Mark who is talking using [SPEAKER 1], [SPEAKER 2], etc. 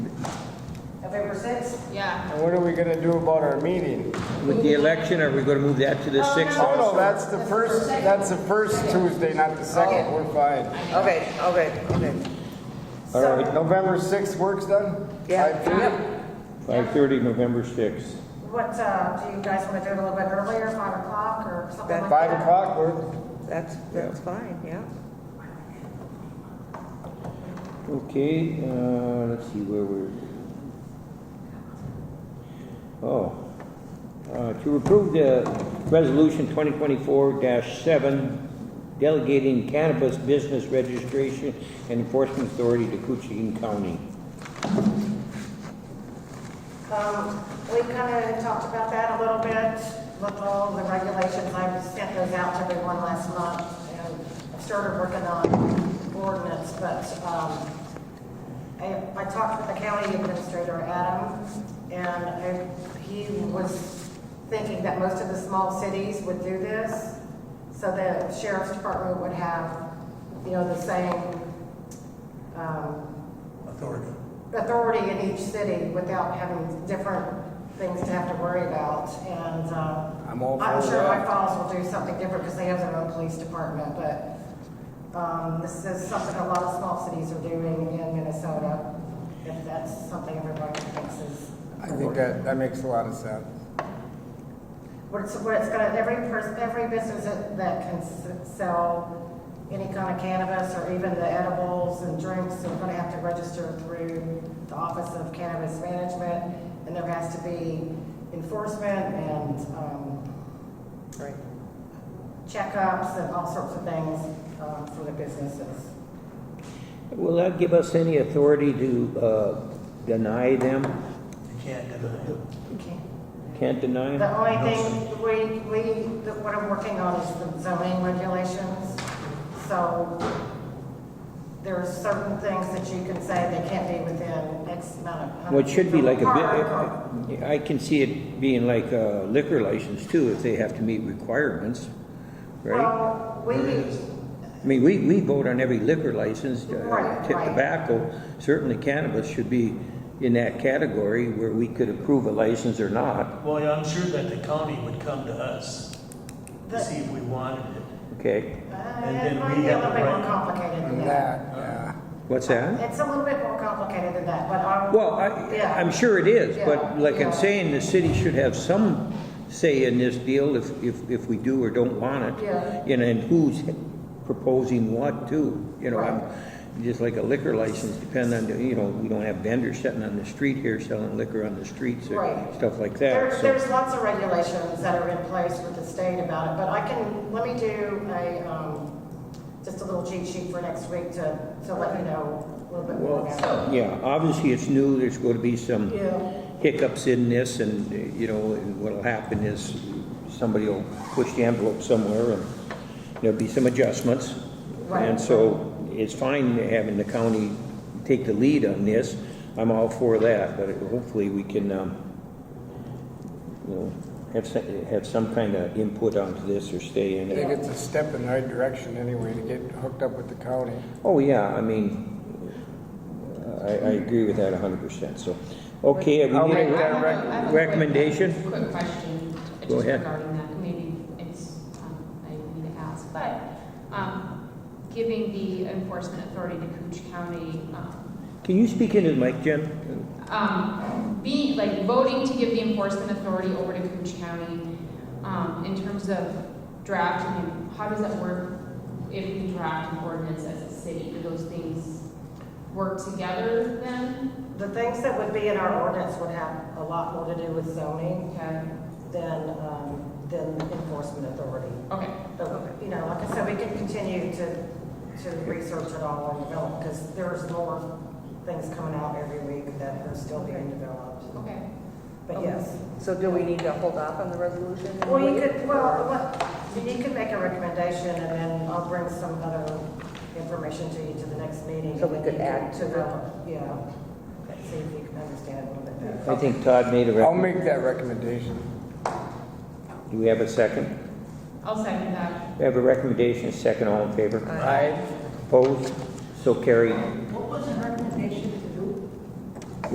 [SPEAKER 1] October sixth?
[SPEAKER 2] Yeah.
[SPEAKER 3] And what are we gonna do about our meeting?
[SPEAKER 4] With the election, are we gonna move that to the
[SPEAKER 2] Oh,
[SPEAKER 4] sixth?
[SPEAKER 3] Oh, no, that's the first, that's the first Tuesday, not the second, we're fine.
[SPEAKER 1] Okay, okay, okay.
[SPEAKER 3] All right, November sixth works then?
[SPEAKER 1] Yeah.
[SPEAKER 3] Five thirty?
[SPEAKER 1] Yep.
[SPEAKER 4] Five thirty, November sixth.
[SPEAKER 5] What, uh, do you guys want to do it a little bit earlier, five o'clock or something
[SPEAKER 1] That
[SPEAKER 5] like that?
[SPEAKER 3] Five o'clock works?
[SPEAKER 1] That's, that's fine, yeah.
[SPEAKER 4] Okay, uh, let's see where we're. Oh, uh, to approve the resolution twenty twenty-four seven delegating cannabis business registration and enforcement authority to Coochin County.
[SPEAKER 5] Um, we kind of talked about that a little bit, looked at all the regulations, I sent those out to everyone last month, and started working on ordinance, but, um, I, I talked with the county administrator, Adam, and I- he was thinking that most of the small cities would do this, so the sheriff's department would have, you know, the same, um,
[SPEAKER 6] authority.
[SPEAKER 5] authority in each city without having different things to have to worry about. And uh,
[SPEAKER 3] I'm all
[SPEAKER 5] I'm
[SPEAKER 3] for
[SPEAKER 5] sure
[SPEAKER 3] that.
[SPEAKER 5] my Falls will do something different because they have their own police department, but um, this is something a lot of small cities are doing in Minnesota. If that's something everybody thinks is,
[SPEAKER 3] I think that, that makes a lot of sense.
[SPEAKER 5] what it's, what it's gonna, every person, every business that that can s- sell any kind of cannabis or even the edibles and drinks are gonna have to register through the Office of Cannabis Management, and there has to be enforcement and, um,
[SPEAKER 1] Right.
[SPEAKER 5] checkups and all sorts of things, um, for the businesses.
[SPEAKER 4] Will that give us any authority to, uh, deny them?
[SPEAKER 6] You can't deny it.
[SPEAKER 4] Can't deny them?
[SPEAKER 5] The only thing we, we, that what I'm working on is the zoning regulations. So there are certain things that you can say they can't be within X amount of.
[SPEAKER 4] Well, it should be like a,
[SPEAKER 5] Park
[SPEAKER 4] bit- uh, I can see it being like a liquor license too, if they have to meet requirements,
[SPEAKER 5] or-
[SPEAKER 4] right?
[SPEAKER 5] Well, we, uh,
[SPEAKER 4] I mean, we, we vote on every liquor license, uh,
[SPEAKER 5] Right,
[SPEAKER 4] tip
[SPEAKER 5] right.
[SPEAKER 4] tobacco, certainly cannabis should be in that category where we could approve a license or not,
[SPEAKER 6] Well, yeah, I'm sure that the county would come to us to
[SPEAKER 5] The-
[SPEAKER 6] see if we wanted it.
[SPEAKER 4] okay?
[SPEAKER 5] uh,
[SPEAKER 6] And
[SPEAKER 5] it
[SPEAKER 6] then
[SPEAKER 5] might
[SPEAKER 6] we
[SPEAKER 5] be a
[SPEAKER 6] have
[SPEAKER 5] little
[SPEAKER 6] the
[SPEAKER 5] bit more
[SPEAKER 6] right-
[SPEAKER 5] complicated than
[SPEAKER 3] And
[SPEAKER 5] that.
[SPEAKER 3] that, yeah.
[SPEAKER 4] What's that?
[SPEAKER 5] It's a little bit more complicated than that, but I'm.
[SPEAKER 4] Well, I,
[SPEAKER 5] Yeah.
[SPEAKER 4] I'm sure it is,
[SPEAKER 5] Yeah,
[SPEAKER 4] but like
[SPEAKER 5] yeah.
[SPEAKER 4] I'm saying, the city should have some say in this deal if, if, if we do or don't want it.
[SPEAKER 5] Yeah.
[SPEAKER 4] You know, and who's proposing what too, you know, I'm, just like a liquor license, depend on, the- you know, we don't have vendors sitting on the street here selling liquor on the streets
[SPEAKER 5] Right.
[SPEAKER 4] and stuff like
[SPEAKER 5] There,
[SPEAKER 4] that, so.
[SPEAKER 5] there's lots of regulations that are in place with the state about it, but I can, let me do a, um, just a little cheat sheet for next week to, to let you know a little bit more about
[SPEAKER 4] Yeah, obviously it's new, there's gonna be some
[SPEAKER 5] it. Yeah,
[SPEAKER 4] hiccups in this and, uh, you know, and what'll happen is somebody will push the envelope somewhere and there'll be some adjustments.
[SPEAKER 5] Right.
[SPEAKER 4] And so it's fine having the county take the lead on this. I'm all for that, but hopefully we can, um, you know, have, some- have some kind of input onto this or stay in
[SPEAKER 3] I think
[SPEAKER 4] it.
[SPEAKER 3] it's a step in the right direction anyway to get hooked up with the county.
[SPEAKER 4] Oh, yeah, I mean, I, I agree with that hundred percent, so. Okay, we
[SPEAKER 3] I'll
[SPEAKER 4] need
[SPEAKER 3] make
[SPEAKER 4] a
[SPEAKER 3] that rec-
[SPEAKER 2] I have a quick-
[SPEAKER 4] recommendation?
[SPEAKER 2] Quick question, uh,
[SPEAKER 4] Go
[SPEAKER 2] just
[SPEAKER 4] ahead.
[SPEAKER 2] regarding that, maybe it's, um, I need to ask, but, um, giving the enforcement authority to Cooch County, um,
[SPEAKER 4] Can you speak into the mic, Jim?
[SPEAKER 2] um, be, like, voting to give the enforcement authority over to Cooch County, um, in terms of draft, I mean, how does that work if we draft an ordinance as a city? Do those things work together then?
[SPEAKER 5] the things that would be in our ordinance would have a lot more to do with zoning
[SPEAKER 2] Okay,
[SPEAKER 5] than, um, than enforcement authority.
[SPEAKER 2] okay.
[SPEAKER 5] But, you know, like I said, we can continue to, to research it all and develop, because there's more things coming out every week that are still being developed.
[SPEAKER 2] Okay.
[SPEAKER 5] But yes.
[SPEAKER 1] So do we need to hold off on the resolution? and
[SPEAKER 5] Well, you
[SPEAKER 1] wait,
[SPEAKER 5] could, well,
[SPEAKER 1] or-
[SPEAKER 5] what, you could make a recommendation, and then I'll bring some other information to you to the next meeting.
[SPEAKER 1] So we could add
[SPEAKER 5] To
[SPEAKER 1] to
[SPEAKER 5] the, yeah, see if you can understand a little bit better.
[SPEAKER 4] I think Todd made a
[SPEAKER 3] I'll
[SPEAKER 4] recommendation.
[SPEAKER 3] make that recommendation.
[SPEAKER 4] Do we have a second?
[SPEAKER 2] I'll second that.
[SPEAKER 4] We have a recommendation, a second, all in favor?
[SPEAKER 1] Aye.
[SPEAKER 4] Opposed? So carried.
[SPEAKER 6] What